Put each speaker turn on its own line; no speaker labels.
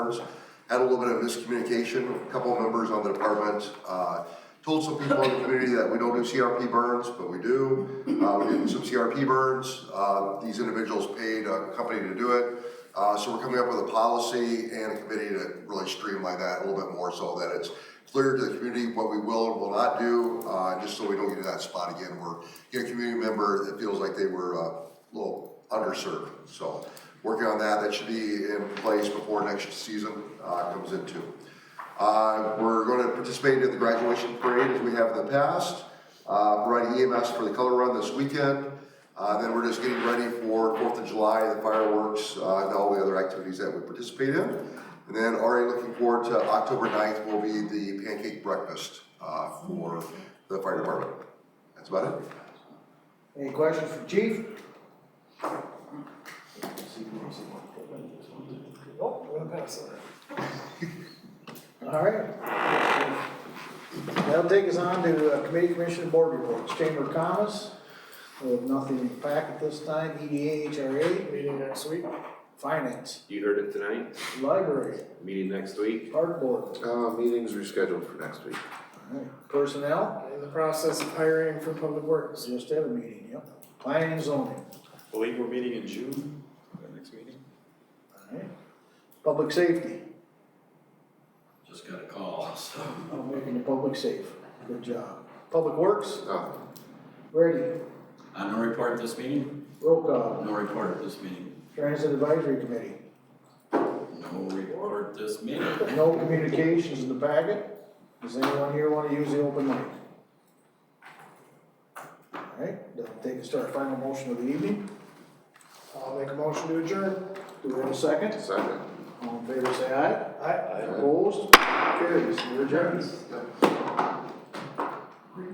departments, had a little bit of miscommunication, a couple of members on the department, uh, told some people in the community that we don't do CRP burns, but we do. Uh, we did some CRP burns, uh, these individuals paid a company to do it. Uh, so we're coming up with a policy and a committee to really streamline that a little bit more so that it's clear to the community what we will and will not do, uh, just so we don't get to that spot again where you get a community member that feels like they were uh, a little underserved. So, working on that, that should be in place before next season uh, comes into. Uh, We're going to participate in the graduation parade as we have in the past, uh, providing EMS for the color run this weekend. Uh, Then we're just getting ready for Fourth of July, the fireworks, uh, and all the other activities that we participate in. And then already looking forward to October 9th will be the pancake breakfast uh, for the fire department. That's about it.
Any questions for chief? Oh, we're gonna pass that. All right. That'll take us on to uh, committee, commission, and board reports, chamber of commerce. We have nothing in the packet this time, E EDA, HRA. Meeting next week. Finance,
You heard it tonight,
library,
meeting next week.
art board,
Uh, meeting's rescheduled for next week.
all right. personnel,
In the process of hiring for public works.
just have a meeting, yep. Planning and zoning,
Believe we're meeting in June, our next meeting?
all right. Public safety,
Just got a call, so.
I'm Oh, making the public safe, good job. Public works,
Oh,
Ready,
Uh, no report at this meeting?
roll call,
No report at this meeting.
Transit Advisory Committee,
No report at this meeting.
no communications in the packet. Does anyone here wanna use the open mic? Alright, that'll take us to our final motion of the evening,
I'll make a motion to adjourn.
do we have a second?
second.
All in favor, say aye.
Aye.
Opposed, carries, we're adjourned.
Yep.